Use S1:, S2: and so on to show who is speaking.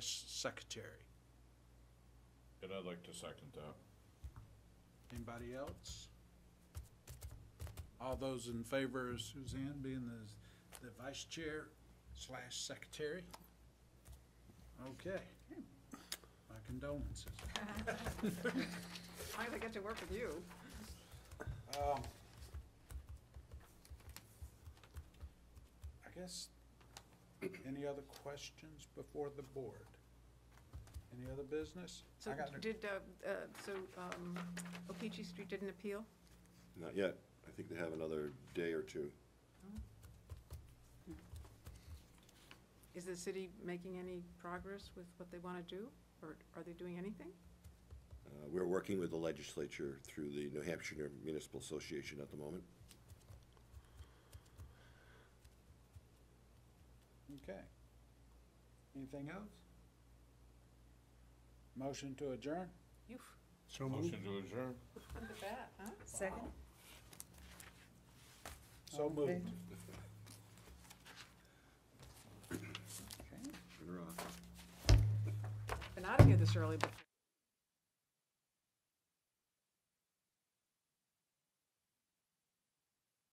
S1: secretary.
S2: And I'd like to second that.
S1: Anybody else? All those in favor of Suzanne being the, the vice chair slash secretary? Okay. My condolences.
S3: Finally get to work with you.
S1: Um, I guess, any other questions before the board? Any other business?
S3: So
S1: I got no-
S3: did, uh, uh, so um, Okeechee Street didn't appeal?
S4: Not yet. I think they have another day or two.
S3: Is the city making any progress with what they want to do, or are they doing anything?
S4: Uh, We're working with the legislature through the New Hampshire Municipal Association at the moment.
S1: Okay. Anything else? Motion to adjourn?
S3: You,
S5: So moved.
S2: Motion to adjourn?
S3: look at that, huh?
S6: Second?
S1: So
S6: All in
S1: moved. Okay.
S3: Been out of here this early before.